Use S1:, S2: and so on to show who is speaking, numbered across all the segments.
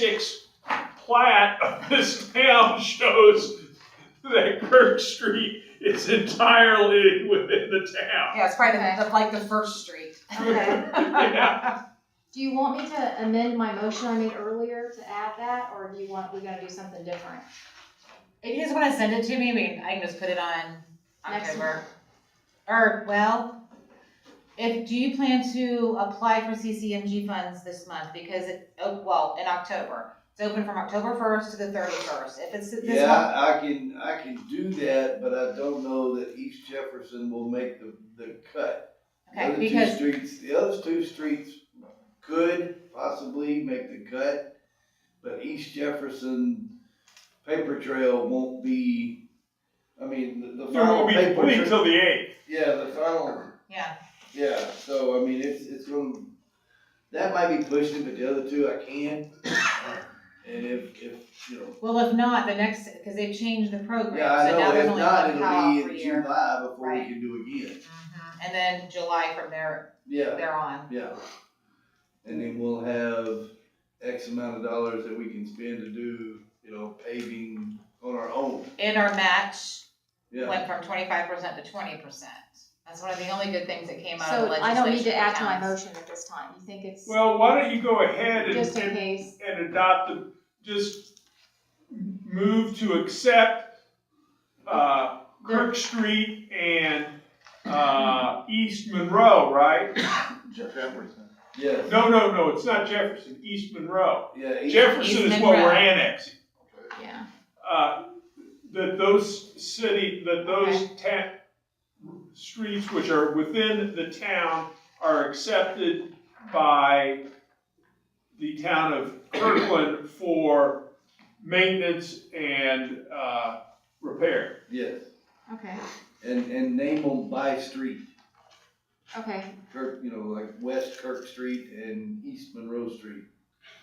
S1: six plat of this town shows that Kirk Street is entirely within the town.
S2: Yeah, it's probably
S3: Okay.
S2: the, the- like the first street.
S3: Okay.
S1: Yeah.
S3: Do you want me to amend my motion I made earlier to add that, or do you want, we gotta do something different?
S2: If you just wanna send it to me, we can, I can just put it on
S3: Next
S2: October. Or, well, if, do you plan to apply for CCMG funds this month? Because it, oh, well, in October. It's open from October first to the thirty-first. If it's this
S4: Yeah,
S2: month,
S4: I I can, I can do that, but I don't know that East Jefferson will make the, the cut.
S2: okay,
S4: The other two
S2: because,
S4: Streets, the other two streets could possibly make the cut, but East Jefferson paper trail won't be, I mean, the, the
S1: There
S4: final
S1: won't be
S4: paper.
S1: complete
S4: tra-
S1: till the eighth.
S4: Yeah, the final,
S2: yeah,
S4: yeah, so I mean, it's, it's gonna, that might be pushing, but the other two I can. And if, if, you know,
S2: well, if not, the next, cause they've changed the program,
S4: Yeah, I
S2: so now
S4: know,
S2: there's
S4: if
S2: only
S4: not,
S2: one
S4: it'll
S2: call
S4: be
S2: per
S4: in
S2: year.
S4: July before we
S2: Right.
S4: can do again,
S2: Mhm. And then July from there,
S4: yeah,
S2: there on.
S4: yeah. And then we'll have X amount of dollars that we can spend to do, you know, paving on our own,
S2: And our match
S4: yeah.
S2: went from twenty-five percent to twenty percent. That's one of the only good things that came out of
S3: So
S2: legislation.
S3: I don't need to add to my
S2: for towns.
S3: motion at this time, you think it's,
S1: Well, why don't you go ahead and,
S3: just in
S1: and,
S3: case,
S1: and adopt the, just move to accept, uh, Kirk Street and, uh, East Monroe, right?
S4: Jefferson. Yeah,
S1: No, no, no, it's not Jefferson, East Monroe.
S4: yeah. each-
S1: Jefferson is what we're
S2: Monroe.
S1: annexing.
S3: yeah,
S1: uh, that those city, that those ta- streets which are within the town are accepted by the town of Kirkland for maintenance and, uh, repair.
S4: Yes,
S3: okay,
S4: and, and name them by street,
S3: okay,
S4: Kirk, you know, like West Kirk Street and East Monroe Street.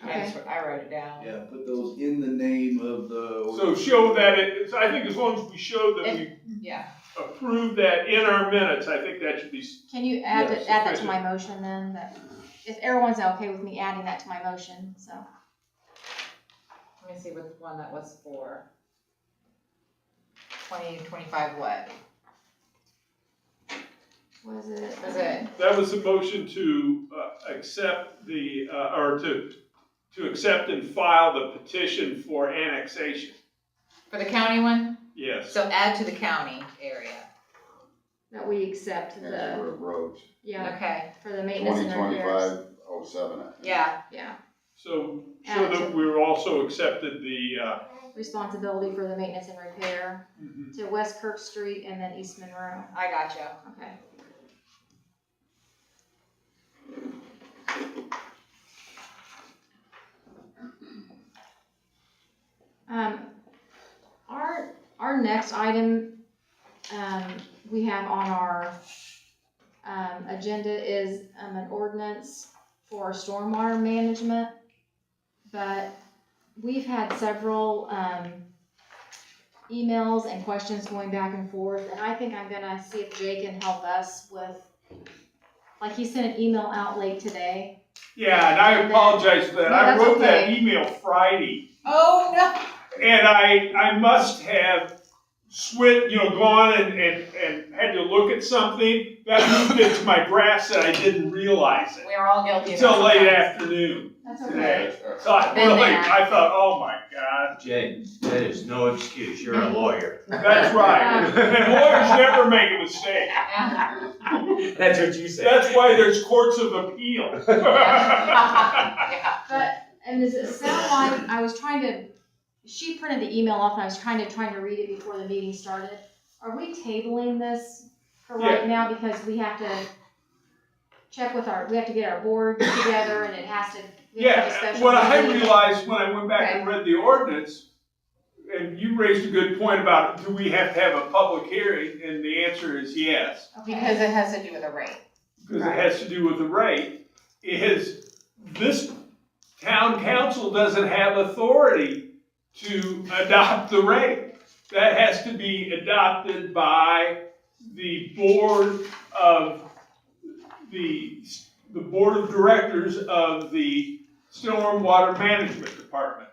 S2: I
S3: okay,
S2: just- I wrote it down.
S4: Yeah, put those in the name of the.
S1: So show that it, it's- I think as long as we show that we
S2: Yeah,
S1: approve that in our minutes, I think that should be, s-
S3: can you add,
S4: Yes,
S3: it- add that to my motion then, that, if everyone's okay with me adding that to my motion, so,
S2: let me see what one that was for. Twenty, twenty-five what?
S3: was it?
S2: Was it,
S1: that was the motion to, uh, accept the, uh, or to, to accept and file the petition for annexation.
S2: for the county one?
S1: Yes.
S2: So add to the county area.
S3: That we accept the,
S5: That's for roads,
S3: yeah,
S2: Okay,
S3: for the maintenance
S5: twenty
S3: and repairs,
S5: twenty-five oh seven.
S2: yeah,
S3: yeah,
S1: So, so
S3: Add
S1: that
S3: to-
S1: we were also accepted the, uh, mm-hmm.
S3: responsibility for the maintenance and repair to West Kirk Street and then East Monroe,
S2: I got you.
S3: okay. Um, our, our next item, um, we have on our, um, agenda is, um, an ordinance for stormwater management. But we've had several, um, emails and questions going back and forth, and I think I'm gonna see if Jay can help us with, like, he sent an email out late today.
S1: yeah, and I apologize for that.
S3: No,
S1: I
S3: that's
S1: wrote that
S3: okay.
S1: email Friday,
S2: Oh, no.
S1: and I, I must have swit, you know, gone and, and, and had to look at something. That moved into my drafts and I didn't realize it
S2: We are all guilty of that.
S1: until late
S2: sometimes.
S1: afternoon.
S3: That's
S1: okay. So I
S2: Been
S1: really,
S2: there.
S1: I thought, oh my God,
S6: Jay, that is no excuse, you're a lawyer.
S1: that's right.
S3: Um,
S1: And lawyers never make a mistake.
S2: Yeah.
S6: That's what you
S1: That's why there's courts of appeal.
S2: Yeah.
S3: But, and does it sound like, I was trying to, she printed the email off and I was trying to, trying to read it before the meeting started. Are we tabling this for right now because we have to check with our, we have to get our board together and it has to. we have to have a
S1: Yeah,
S3: special
S1: what I
S3: meeting.
S1: realized when I went back and read the ordinance, and you raised a good point about, do we have to have a public hearing? And the answer is yes,
S3: Okay,
S2: Because it has to do with the rate.
S1: because it
S2: Right.
S1: has to do with the rate, is this town council doesn't have authority to adopt the rate. That has to be adopted by the board of the, the board of directors of the Stormwater Management Department.